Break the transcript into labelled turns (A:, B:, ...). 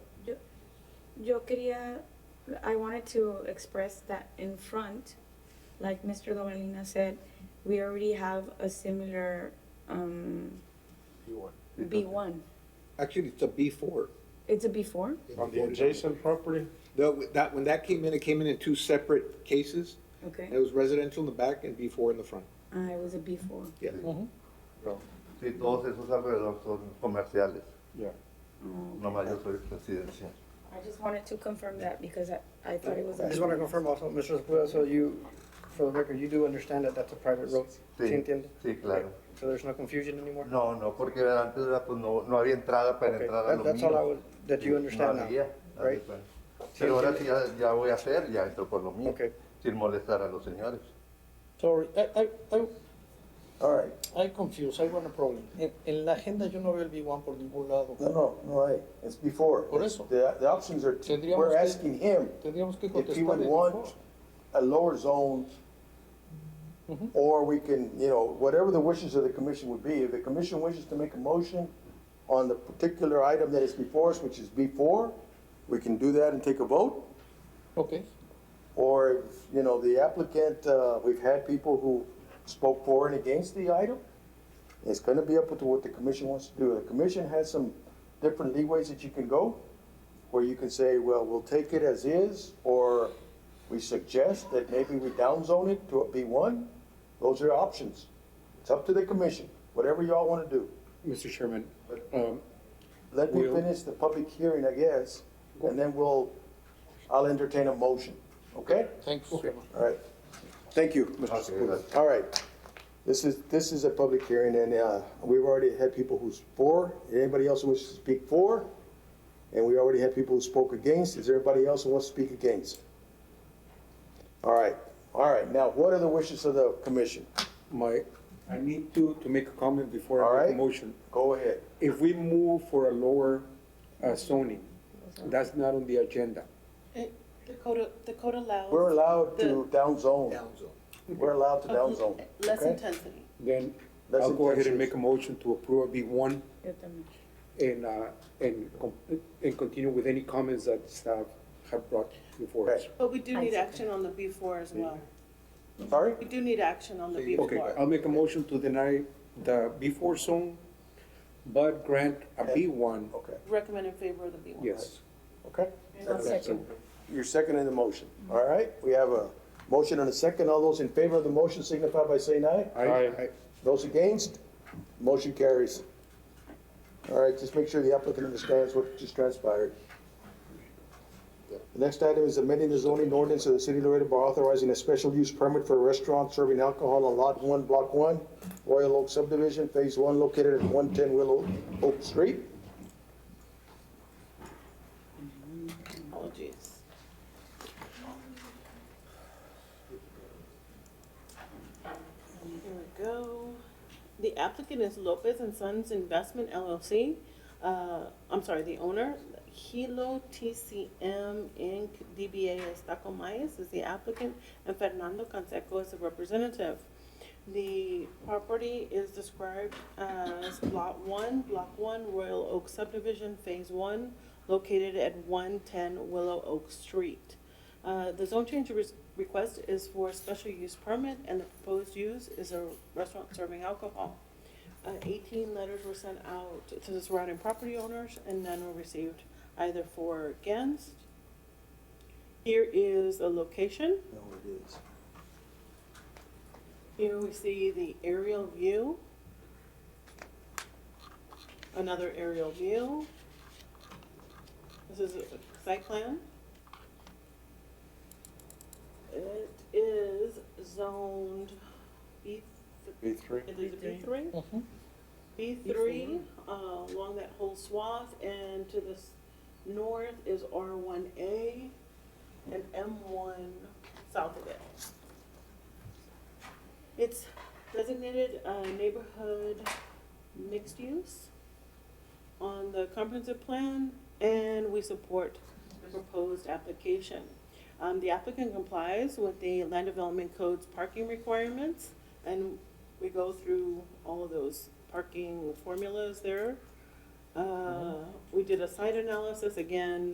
A: Yo quería, I wanted to express that in front, like Mr. Gabalina said, we already have a similar um,
B: B1.
A: B1.
C: Actually, it's a B four.
A: It's a B4?
B: On the adjacent property,
C: That, that, when that came in, it came in in two separate cases. It
A: Okay.
C: was residential in the back and B four in the front.
A: Uh, it was a B4.
C: Yeah.
D: No. Sí, todos esos alrededor son comerciales.
B: yeah.
A: Oh,
D: Nomás yo soy residencial.
A: I just wanted to confirm that because I, I thought it was a
E: I just want to
A: B4.
E: confirm also, Mr. Sepulveda, so you, for the record, you do understand that that's a private road?
D: Sí,
E: ¿Sí entiende?
D: sí, claro.
E: So there's no confusion anymore?
D: No, no, porque antes era, pues, no, no había entrada para
E: Okay,
D: entrar a
E: that-
D: lo
E: that's all I
D: mío.
E: would, that you understand now?
D: no había, haz de
E: right?
D: cuenta.
E: Sí,
D: Pero ahora sí
E: entiende.
D: ya, ya voy a hacer, ya entro por lo mío,
E: Okay.
D: sin molestar a los señores.
F: Sorry, I, I, I,
G: All right,
F: I confused, I want a problem. En, en la agenda yo no veo el B1 por ningún lado.
G: no, no, no hay, it's before.
F: Por eso.
G: The, the options are, t-
F: Tendríamos
G: we're
F: que-
G: asking him
F: Tendríamos que
G: if he would
F: contestar. el
G: want a lower zone,
F: Mhm.
G: or we can, you know, whatever the wishes of the commission would be. If the commission wishes to make a motion on the particular item that is before us, which is B four, we can do that and take a vote.
F: Okay,
G: Or, if, you know, the applicant, uh, we've had people who spoke for and against the item. It's gonna be up to what the commission wants to do. The commission has some different leeways that you can go, where you can say, well, we'll take it as is, or we suggest that maybe we downzone it to a B one. Those are options. It's up to the commission, whatever y'all wanna do.
H: Mr. Chairman, um,
G: Let me
H: We'll-
G: finish the public hearing, I guess, and then we'll, I'll entertain a motion, okay?
F: thanks.
G: All right. Thank you, Mr.
D: Okay,
G: Sepulveda.
D: that's-
G: All right. This is, this is a public hearing, and uh, we've already had people who's for. Anybody else who wishes to speak for? And we already had people who spoke against. Is there anybody else who wants to speak against? All right, all right. Now, what are the wishes of the commission?
H: my, I need to, to make a comment before
G: All
H: I make
G: right.
H: a motion.
G: Go ahead.
H: If we move for a lower uh, zoning, that's not on the agenda.
I: It- Eh, The code, the code allows.
G: We're allowed to
I: the-
G: downzone. We're allowed to
I: uh,
G: downzone.
I: Less
G: okay?
I: intensity.
H: Then
G: That's
H: I'll go ahead
G: intensive.
H: and make a motion to approve a B one
A: Yo también.
H: and, uh, and, com- and continue with any comments that staff have brought before us.
I: But we do
A: I
I: need
A: see.
I: action on the B four as well.
G: Sorry?
I: We do need action on the B
H: Okay, Um, I'll
I: four.
H: make a motion to deny the B four zone, but grant a B one,
G: Okay,
I: Recommend in favor of the B one.
H: yes.
G: okay.
A: I'll second.
G: You're seconding the motion. All right, we have a motion and a second. All those in favor of the motion signify by saying aye.
H: I,
G: Those against, motion carries. All right, just make sure the applicant understands what just transpired. The next item is amending the zoning ordinance of the city of Laredo by authorizing a special use permit for a restaurant serving alcohol on Lot One, Block One, Royal Oak subdivision, Phase One, located at one ten Willow Oak Street.
I: Apologies. Here we go. The applicant is Lopez and Sons Investment LLC. Uh, I'm sorry, the owner, Hilo TCM Inc., DBA Estaco Mayas is the applicant, and Fernando Canseco is the representative. The property is described as Lot One, Block One, Royal Oak Subdivision, Phase One, located at one ten Willow Oak Street. Uh, the zone change re- request is for a special use permit, and the proposed use is a restaurant serving alcohol. Uh, eighteen letters were sent out to the surrounding property owners, and none were received either for or against. Here is the location.
G: No, it is.
I: Here we see the aerial view. Another aerial view. This is a site plan. It is zoned B. B three. It is B three.
F: Mhm.
I: B three, uh, along that whole swath, and to the s- north is R one A and M one south of it. It's designated uh, neighborhood mixed use on the comprehensive plan, and we support the proposed application. Um, the applicant complies with the land development code's parking requirements, and we go through all of those parking formulas there. Uh, we did a site analysis, again,